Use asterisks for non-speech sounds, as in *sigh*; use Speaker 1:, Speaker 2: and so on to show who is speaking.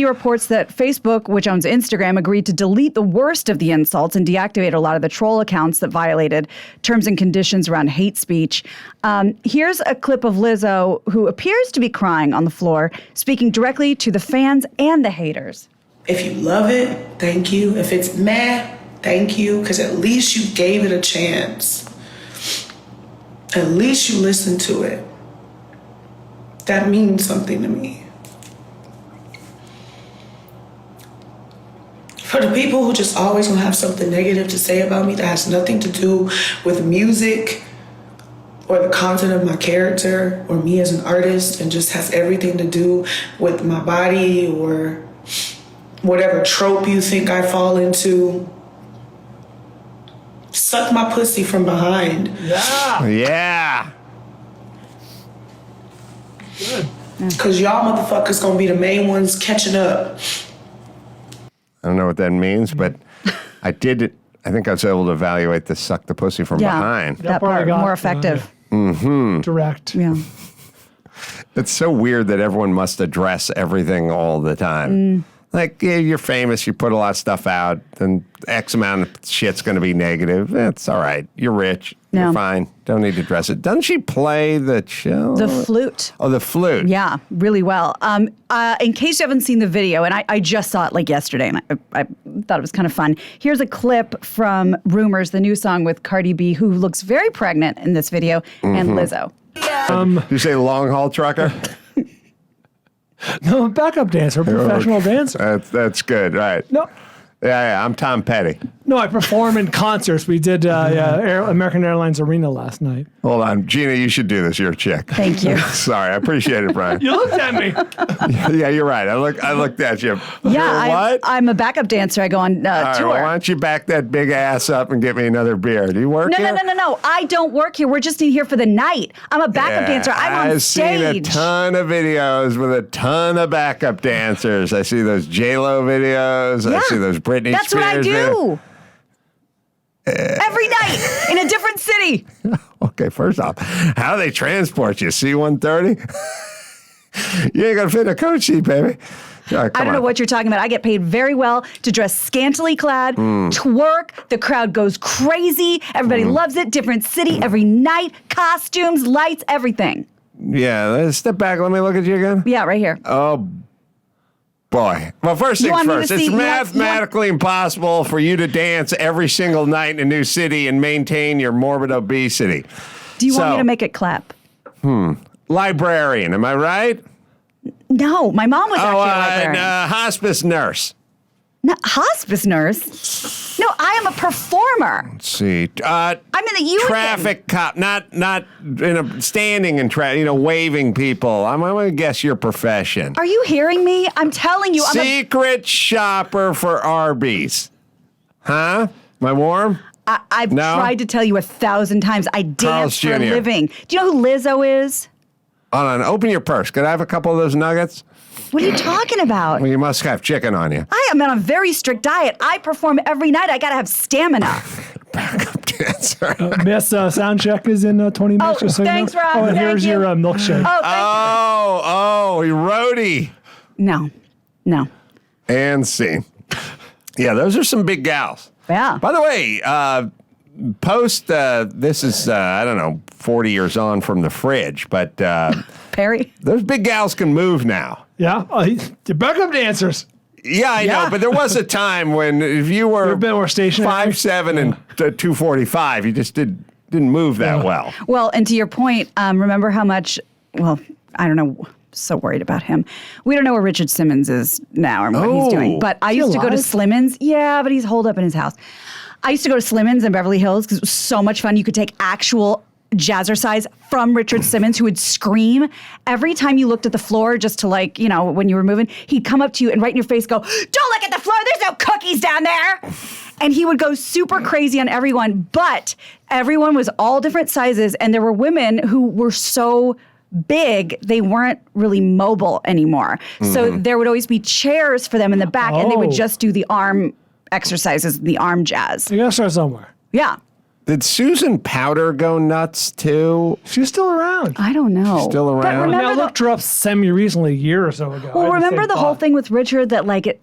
Speaker 1: He reports that Facebook, which owns Instagram, agreed to delete the worst of the insults and deactivate a lot of the troll accounts that violated terms and conditions around hate speech. Um, here's a clip of Lizzo, who appears to be crying on the floor, speaking directly to the fans and the haters.
Speaker 2: If you love it, thank you. If it's meh, thank you, because at least you gave it a chance. At least you listened to it. That means something to me. For the people who just always gonna have something negative to say about me that has nothing to do with music or the content of my character or me as an artist and just has everything to do with my body or whatever trope you think I fall into. Suck my pussy from behind.
Speaker 3: Yeah.
Speaker 2: Cause y'all motherfuckers gonna be the main ones catching up.
Speaker 3: I don't know what that means, but I did. I think I was able to evaluate the suck the pussy from behind.
Speaker 1: that
Speaker 4: part I
Speaker 1: part,
Speaker 4: got.
Speaker 1: more effective.
Speaker 4: *laughs* Direct.
Speaker 1: Yeah.
Speaker 3: It's so weird that everyone must address everything all the
Speaker 1: Mm.
Speaker 3: time. Like, yeah, you're famous, you put a lot of stuff out, and X amount of shit's going to be negative. That's all right. You're rich.
Speaker 1: No.
Speaker 3: You're fine. Don't need to address it. Doesn't she play the cello?
Speaker 1: The flute.
Speaker 3: oh, the flute.
Speaker 1: Yeah, really well. Um, uh, in case you haven't seen the video, and I, I just saw it like yesterday, and I, I thought it was kind of fun. Here's a clip from Rumors, the new song with Cardi B, who looks very pregnant in this video, and
Speaker 3: Mm-hmm.
Speaker 1: Lizzo.
Speaker 4: Um,
Speaker 3: Did you say long haul trucker?
Speaker 4: No, backup dancer, professional dancer.
Speaker 3: that's, that's good. Right.
Speaker 4: No,
Speaker 3: Yeah, yeah. I'm Tom Petty.
Speaker 4: no, I perform in concerts. We did uh, yeah, Air, American Airlines Arena last night.
Speaker 3: Hold on. Gina, you should do this. You're a chick.
Speaker 1: Thank you.
Speaker 3: *laughs* Sorry. I appreciate
Speaker 4: *laughs*
Speaker 3: it, Brian.
Speaker 4: You looked at me.
Speaker 3: yeah, you're right. I look, I looked at you. You're
Speaker 1: Yeah, I,
Speaker 3: what?
Speaker 1: I'm a backup dancer. I go on uh,
Speaker 3: All right,
Speaker 1: tour.
Speaker 3: well, why don't you back that big ass up and get me another beer? Do you work
Speaker 1: no,
Speaker 3: here?
Speaker 1: no, no, no, no. I don't work here. We're just in here for the night. I'm a backup
Speaker 3: Yeah,
Speaker 1: dancer. I'm on
Speaker 3: I've
Speaker 1: stage.
Speaker 3: seen a ton of videos with a ton of backup dancers. I see those J Lo videos. I
Speaker 1: Yeah.
Speaker 3: see those Britney
Speaker 1: That's
Speaker 3: Spears.
Speaker 1: what I
Speaker 3: videos.
Speaker 1: do. Every night in a different city.
Speaker 3: Okay, first off, how they transport you? C one thirty. *laughs* You ain't gonna fit in a coach seat, baby. All right,
Speaker 1: I
Speaker 3: come
Speaker 1: don't know
Speaker 3: on.
Speaker 1: what you're talking about. I get paid very well to dress scantily clad,
Speaker 3: Mm.
Speaker 1: twerk. The crowd goes crazy. Everybody
Speaker 3: Mm-hmm.
Speaker 1: loves it. Different city every night. Costumes, lights, everything.
Speaker 3: Yeah, let's step back. Let me look at you again.
Speaker 1: Yeah, right here.
Speaker 3: Oh, Boy. Well, first
Speaker 1: You
Speaker 3: things
Speaker 1: want me to
Speaker 3: first,
Speaker 1: see-
Speaker 3: it's
Speaker 1: you want- you want-
Speaker 3: mathematically impossible for you to dance every single night in a new city and maintain your morbid obesity.
Speaker 1: Do you want
Speaker 3: so-
Speaker 1: me to make it clap?
Speaker 3: Librarian, am I right?
Speaker 1: No, my mom was
Speaker 3: oh,
Speaker 1: actually a
Speaker 3: uh,
Speaker 1: librarian.
Speaker 3: and, uh, hospice nurse.
Speaker 1: No, hospice nurse. No, I am a performer.
Speaker 3: Let's see. Uh,
Speaker 1: I'm in the union.
Speaker 3: traffic cop, not not in a standing in traffic, you know, waving people. I'm, I'm gonna guess your profession.
Speaker 1: Are you hearing me? I'm telling you, I'm a,
Speaker 3: Secret shopper for Arby's. Huh? Am I warm?
Speaker 1: I, I've
Speaker 3: No?
Speaker 1: tried to tell you a thousand times. I dance
Speaker 3: Carl's
Speaker 1: for a
Speaker 3: Jr..
Speaker 1: living. Do you know who Lizzo is?
Speaker 3: Hold on, open your purse. Could I have a couple of those nuggets?
Speaker 1: What are you talking about?
Speaker 3: Well, you must have chicken on you.
Speaker 1: I am on a very strict diet. I perform every night. I gotta have
Speaker 4: *laughs*
Speaker 1: stamina. Oh,
Speaker 3: backup dancer.
Speaker 4: Miss uh, sound check is in uh, 20 minutes.
Speaker 1: Oh,
Speaker 4: just so
Speaker 1: thanks,
Speaker 4: you know.
Speaker 1: Rob.
Speaker 4: Oh, and
Speaker 1: Thank
Speaker 4: here's
Speaker 1: you.
Speaker 4: your uh, milkshake.
Speaker 1: Oh, thank
Speaker 3: Oh, oh, roadie
Speaker 1: no, no.
Speaker 3: and scene. Yeah, those are some big gals.
Speaker 1: Yeah.
Speaker 3: By the way, uh, post uh, this is uh, I don't know forty years on from the fridge, but uh,
Speaker 1: Perry.
Speaker 3: those big gals can move now.
Speaker 4: Yeah, uh, the backup dancers.
Speaker 3: Yeah, I
Speaker 1: Yeah.
Speaker 3: know, but there was a time when if you were
Speaker 4: You're a bit more stationary.
Speaker 3: five seven and t- two forty five, you just did didn't move that well.
Speaker 1: Well, and to your point, um, remember how much? Well, I don't know. So worried about him. We don't know where Richard Simmons is now or what he's doing.
Speaker 3: Oh.
Speaker 1: But I
Speaker 4: Is he
Speaker 1: used to go to
Speaker 4: alive?
Speaker 1: Slimmins. Yeah, but he's holed up in his house. I used to go to Slimmins in Beverly Hills because it was so much fun. You could take actual jazzercise from Richard Simmons, who would scream every time you looked at the floor, just to like you know when you were moving. He'd come up to you and right in your face go, "Don't look at the floor. There's no cookies down there." And he would go super crazy on everyone, but everyone was all different sizes, and there were women who were so big they weren't really mobile anymore. So there would always be chairs for them in the back, and they would
Speaker 4: Oh.
Speaker 1: just do the arm exercises, the arm jazz.
Speaker 4: You gotta start somewhere.
Speaker 1: Yeah.
Speaker 3: Did Susan Powder go nuts too?
Speaker 4: She's still around.
Speaker 1: I don't know.
Speaker 3: Still
Speaker 1: But
Speaker 3: around?
Speaker 1: remember
Speaker 4: I
Speaker 1: the-
Speaker 4: looked her up semi recently, a year or so ago. I
Speaker 1: well,
Speaker 4: had same
Speaker 1: remember the whole
Speaker 4: thought.
Speaker 1: thing with Richard that like it